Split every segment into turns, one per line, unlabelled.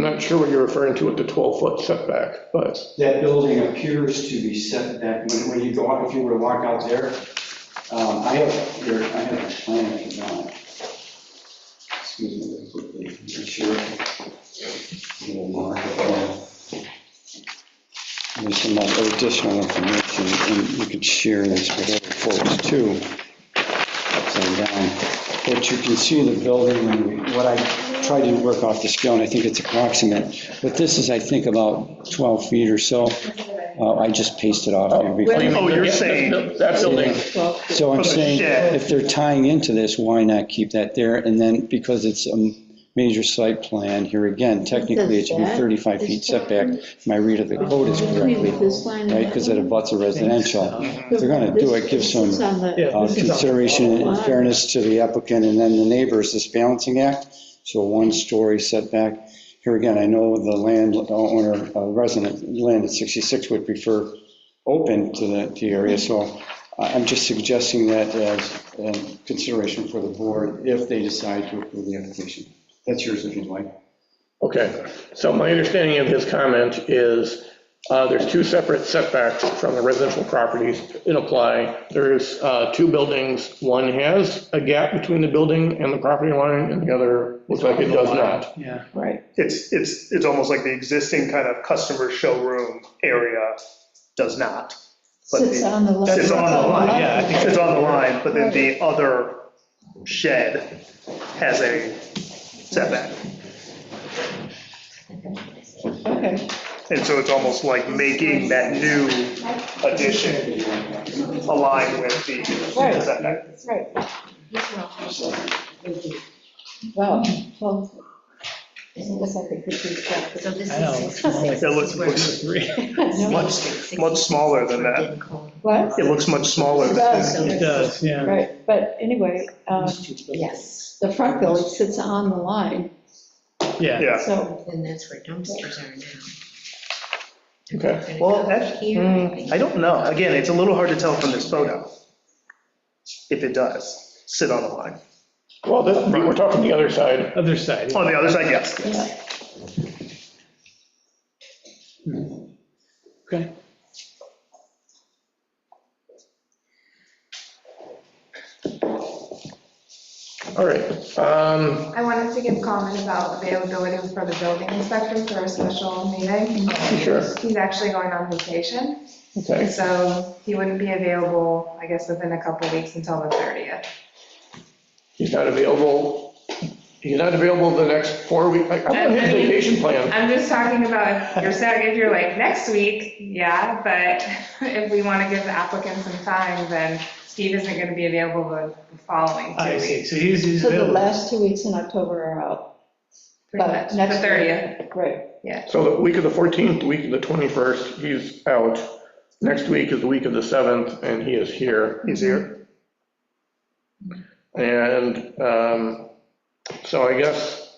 not sure what you're referring to with the 12-foot setback, but
That building appears to be set back, when, when you go out, if you were to walk out there, um, I have, here, I have a plan if you want. Excuse me, quickly, make sure. Little mark up there. There's some other additional information, and you could share this with other folks too. Upside down. But you can see the building, and what I tried to work off the scale, and I think it's approximate, but this is, I think, about 12 feet or so. Uh, I just pasted off here before.
Wait a minute,
Oh, you're
that-
saying-
that- That building,
So I'm
From the
saying,
shed.
if they're tying into this, why not keep that there? And then, because it's a major site plan, here again, technically, it should be
Does that-
35 feet
is that-
setback, if my read of the code is correctly,
Between this line and
right, because it
that
abuts a residential.
Mhm.
If they're going to do it, give
This is
some
on the-
Yeah,
uh,
this is on-
consideration and fairness to the applicant, and then the neighbors, this balancing act, so one-story setback. Here again, I know the landowner, uh, resident, land at 66 would prefer open to the, to the area, so I- I'm just suggesting that as um, consideration for the board if they decide to approve the application. That's yours if you'd like.
Okay, so my understanding of his comment is, uh, there's two separate setbacks from the residential properties that apply. There's uh, two buildings, one has a gap between the building and the property line, and the other looks like it does not.
yeah.
Right,
It's, it's, it's almost like the existing kind of customer showroom area does not. But
sits
the-
on the line.
It's on the line, yeah, I think it's on the line, but then the other shed has a setback.
Okay,
And so it's almost like making that new addition align with the
Right.
setback.
that's right. Wow, well, I guess I could repeat that.
So this
I know, it's
is
more like-
six.
It looks, looks
No,
much, much smaller than that.
What?
It looks much smaller than that.
It does, yeah.
Right, but anyway, um,
Yes,
the front building sits on the line,
Yeah,
Yeah,
so,
and that's where dumpsters are now.
Okay.
Gonna
Well,
go
that-
here, hmm, I
hmm,
think.
I don't know. Again, it's a little hard to tell from this photo. If it does sit on the line.
Well, this- we're talking the other side.
other side.
On the other side, yes.
yeah.
Okay.
All right. um,
I wanted to give comment about availability for the building inspector for a special meeting.
Sure.
He's actually going on vacation,
Okay,
so he wouldn't be available, I guess, within a couple weeks until the 30th.
he's not available, he's not available the next four weeks. I I don't have a vacation plan.
I'm just talking about, if you're saying, if you're like, next week, yeah, but if we want to give the applicant some time, then Steve isn't going to be available the the following
I
two weeks.
see, so he's, he's
So the
available.
last two weeks in October are out,
pretty
but
much, The
next.
30th.
Right,
So the week of the 14th, the week of the 21st, he's out. Next week is the week of the 7th, and he is here.
He's here.
And um, so I guess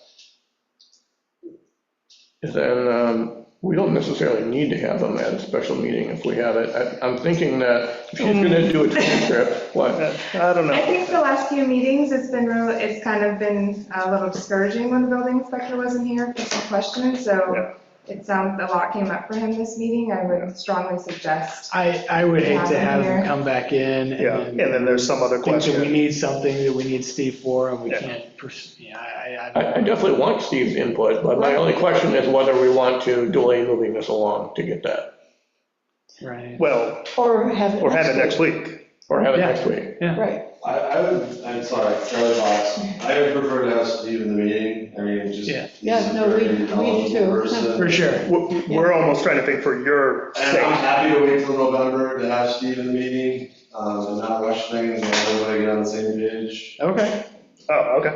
then um, we don't necessarily need to have them at a special meeting if we have it. I- I'm thinking that if she's going to
Mm.
do a transcript, what?
Uh, I don't
I
know.
think the last few meetings, it's been real, it's kind of been a little discouraging when the building inspector wasn't here for some questions,
Yeah.
so it sounds, a lot came up for him this meeting, I would strongly suggest.
I, I would hate to have
Yeah.
him come back in
Yeah.
and
And
then
then there's some other
think that we
question.
need something that we need Steve for and we
Yeah.
can't, pers- yeah, I, I-
I I definitely want Steve's input, but my only question is whether we want to delay moving this along to get that,
I, right.
Well,
or have it.
or have it next week.
or have it
Yeah.
next week.
Right,
I, I would, I'm sorry, Charlie Fox, I would prefer to have Steve in the meeting, I mean, just.
Yeah.
he's
Yeah,
a
no, we-
very
we
knowledgeable
too.
person.
For sure.
We're we're almost trying to think for your
And I'm
sake.
happy to wait till November to have Steve in the meeting, um, and not rush things, and everybody get on the same page.
Okay,
Oh, okay.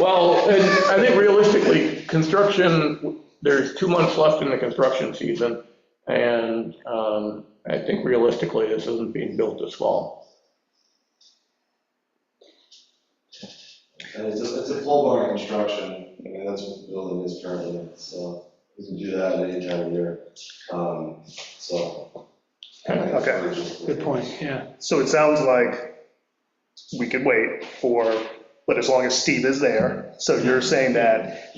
Well, and I think realistically, construction, there's two months left in the construction season, and um, I think realistically, this isn't being built this fall.
And it's a, it's a full-blown construction, I mean, that's what the building is currently, so we can do that at any time of year, um, so.
Okay.
good point, yeah.
So it sounds like we could wait for, but as long as Steve is there. So you're saying that